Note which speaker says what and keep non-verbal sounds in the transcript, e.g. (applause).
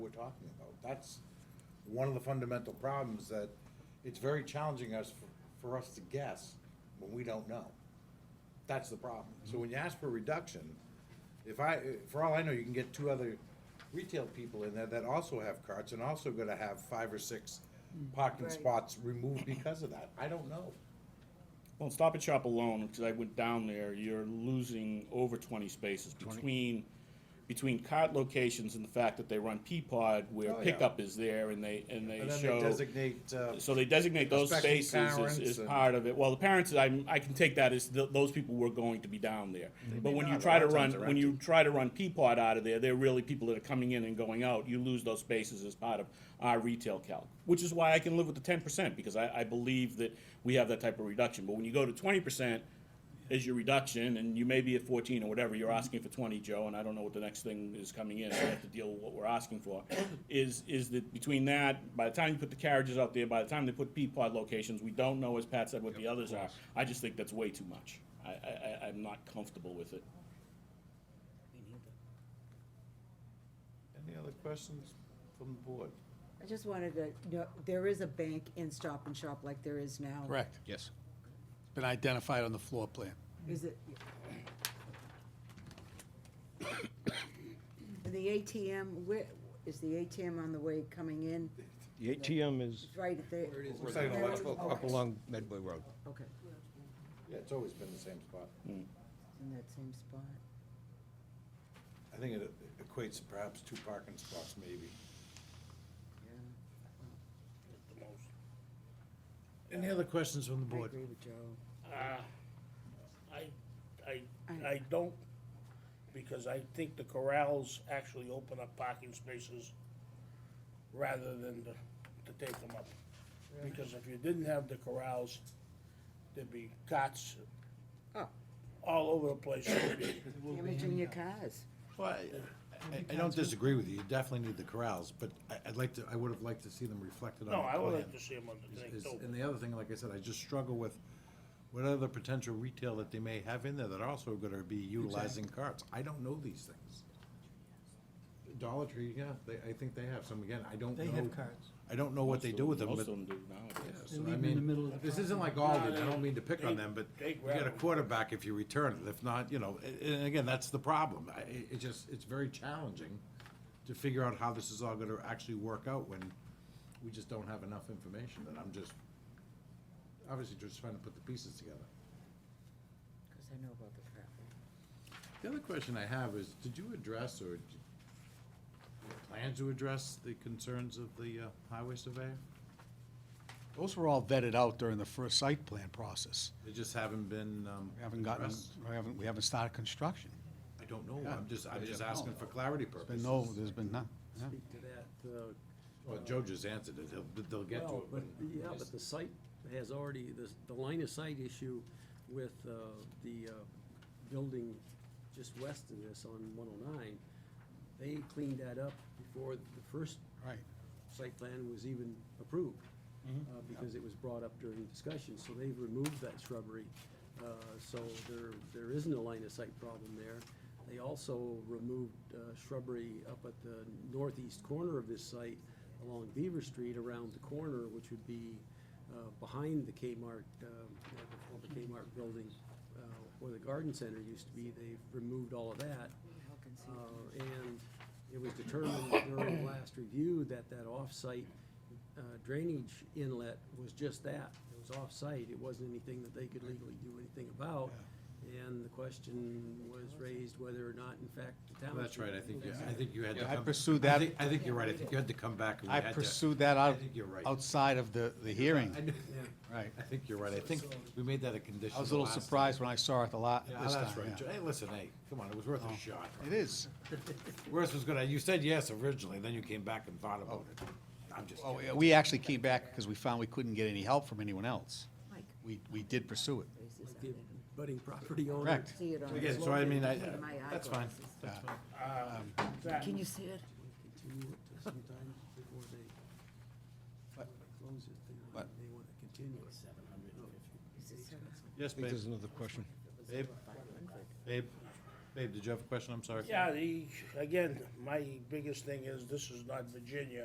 Speaker 1: talking about. That's one of the fundamental problems that it's very challenging us, for- for us to guess when we don't know. That's the problem. So when you ask for reduction, if I, for all I know, you can get two other retail people in there that also have carts and also gonna have five or six parking
Speaker 2: Right.
Speaker 1: spots removed because of that. I don't know.
Speaker 3: Well, Stop and Shop alone, because I went down there, you're losing over twenty spaces between, between cart locations and the fact that they run Peapod where
Speaker 1: Oh, yeah.
Speaker 3: pickup is there and they, and they
Speaker 1: And then they
Speaker 3: show.
Speaker 1: designate, uh,
Speaker 3: So they designate those
Speaker 1: Especially
Speaker 3: spaces as,
Speaker 1: parents
Speaker 3: as
Speaker 1: and-
Speaker 3: part of it. Well, the parents, I, I can take that as th- those people were going to be down there. But
Speaker 1: may
Speaker 3: when you
Speaker 1: not. A
Speaker 3: try
Speaker 1: lot
Speaker 3: to
Speaker 1: of times
Speaker 3: run,
Speaker 1: they're
Speaker 3: when you try to run Peapod out of there, they're really people that are coming in and going out. You lose those spaces as part of our retail calc, which is why I can live with the ten percent because I, I believe that we have that type of reduction. But when you go to twenty percent as your reduction, and you may be at fourteen or whatever, you're asking for twenty, Joe, and I don't know what the next thing is coming in. We have to deal with what we're asking for. Is is that between that, by the time you put the carriages out there, by the time they put Peapod locations, we don't know, as Pat said, what the others are. I just think that's way too much. I, I, I- I'm not comfortable with it.
Speaker 1: Any other questions from the board?
Speaker 2: I just wanted to, know there is a bank in Stop and Shop like there is now.
Speaker 4: Correct. Yes. It's been identified on the floor plan.
Speaker 2: Is it? (coughs) And the ATM, where, is the ATM on the way coming in?
Speaker 5: The ATM is
Speaker 2: It's right at the.
Speaker 1: Looks like an electrical
Speaker 2: Okay.
Speaker 5: up along Medway Road.
Speaker 2: Okay,
Speaker 1: Yeah, it's always been the same spot.
Speaker 2: It's in that same spot.
Speaker 1: I think it equates to perhaps two parking spots maybe.
Speaker 2: Yeah,
Speaker 1: Any other questions from the
Speaker 2: I agree with Joe.
Speaker 6: I, I,
Speaker 2: I-
Speaker 6: I don't, because I think the corrals actually open up parking spaces rather than to, to take them up. Because if you didn't have the corrals, there'd be cots
Speaker 2: Oh,
Speaker 6: all over
Speaker 1: (coughs)
Speaker 6: the place.
Speaker 2: damaging your cars.
Speaker 1: Well, I- I, I don't disagree with you, you definitely need the corrals, but I, I'd like to, I would have liked to see them reflected on the
Speaker 6: No, I
Speaker 1: plan.
Speaker 6: would like to see them on the thing
Speaker 1: Is- is- And
Speaker 6: too.
Speaker 1: the other thing, like I said, I just struggle with what other potential retail that they may have in there that are also gonna be utilizing carts. I don't know these things. Dollar Tree, yeah, they, I think they have some, again, I don't know.
Speaker 7: They have carts.
Speaker 1: I don't know what they do with them,
Speaker 3: Most
Speaker 1: but.
Speaker 3: of them do nowadays.
Speaker 1: Yeah,
Speaker 7: They
Speaker 1: so
Speaker 7: leave
Speaker 1: I
Speaker 7: them in the
Speaker 1: mean,
Speaker 7: middle of the
Speaker 1: This isn't like Alden, I don't mean to pick on them, but
Speaker 6: they
Speaker 1: you get a
Speaker 6: grab 'em.
Speaker 1: quarterback if you return it, if not, you know, a- and again, that's the problem. I, it, it just, it's very challenging to figure out how this is all gonna actually work out when we just don't have enough information, and I'm just, obviously just trying to put the pieces together.
Speaker 2: Because I know about the traffic.
Speaker 1: The other question I have is, did you address or d- plan to address the concerns of the uh, highway surveyor?
Speaker 4: Those were all vetted out during the first site plan process.
Speaker 1: They just haven't been, um,
Speaker 4: We haven't gotten,
Speaker 1: addressed?
Speaker 4: we haven't, we haven't started construction.
Speaker 1: I don't know,
Speaker 4: Yeah.
Speaker 1: I'm just, I'm
Speaker 4: Yeah,
Speaker 1: just
Speaker 4: yeah.
Speaker 1: asking for clarity
Speaker 4: There's
Speaker 1: purposes.
Speaker 4: been no, there's been none. yeah.
Speaker 7: Speak to that, uh,
Speaker 1: Well, Joe just answered it, they'll, they'll get to
Speaker 7: well,
Speaker 1: it.
Speaker 7: but,
Speaker 1: when-
Speaker 7: yeah, but the site has already, the, the line of sight issue with, uh, the, uh, building just west of this on one oh nine, they cleaned that up before the first
Speaker 4: Right.
Speaker 7: site plan was even approved, uh, because it was brought up during discussion, so they've removed that shrubbery. Uh, So there, there isn't a line of sight problem there. They also removed uh, shrubbery up at the northeast corner of this site along Beaver Street around the corner, which would be uh, behind the Kmart, um, uh, the former Kmart building, uh, where the garden center used to be. They've removed all of that. Uh, And it was determined during last review that that off-site uh, drainage inlet was just that. It was off-site. It wasn't anything that they could legally do anything about. And the question was raised whether or not, in fact, the town.
Speaker 1: That's right, I think, you-
Speaker 7: should-
Speaker 1: I think you had to
Speaker 4: Yeah, I
Speaker 1: come-
Speaker 4: pursued
Speaker 1: I
Speaker 4: that.
Speaker 1: think, I think you're right, I think you had to come back and we
Speaker 4: I
Speaker 1: had to.
Speaker 4: pursued that out,
Speaker 1: I think you're right.
Speaker 4: outside of the, the hearing. (laughs)
Speaker 1: I knew-
Speaker 4: Right.
Speaker 1: I think you're right, I think we made that a condition.
Speaker 4: I was a
Speaker 1: the
Speaker 4: little
Speaker 1: last time.
Speaker 4: surprised when I saw it the lot,
Speaker 1: Yeah,
Speaker 4: this
Speaker 1: that's
Speaker 4: time,
Speaker 1: right, Joe.
Speaker 4: yeah. Oh.
Speaker 1: hey, listen, hey, come on, it was worth a shot.
Speaker 4: It is.
Speaker 1: Worth was gonna, you said yes originally, then you came back and thought about it. I'm just
Speaker 4: Oh,
Speaker 1: kidding.
Speaker 4: yeah, we actually came back because we found we couldn't get any help from anyone else.
Speaker 2: Mike.
Speaker 4: We, we did pursue it.
Speaker 2: Raises
Speaker 7: Like
Speaker 2: out
Speaker 7: the
Speaker 2: there.
Speaker 7: budding property owner.
Speaker 4: Correct.
Speaker 2: See it on.
Speaker 1: Again, so I mean, I,
Speaker 4: uh,
Speaker 2: My
Speaker 1: that's fine.
Speaker 2: eyeglasses.
Speaker 6: That-
Speaker 2: Can you see it?
Speaker 7: Continue it to sometime before they
Speaker 4: But-
Speaker 7: close it. They-
Speaker 4: but-
Speaker 7: They want to continue it.
Speaker 2: Is it seven?
Speaker 1: Yes,
Speaker 5: I think there's another question.
Speaker 1: Babe, babe,
Speaker 8: Babe, did you have a question? I'm sorry.
Speaker 6: Yeah, the, again, my biggest thing is, this is not Virginia.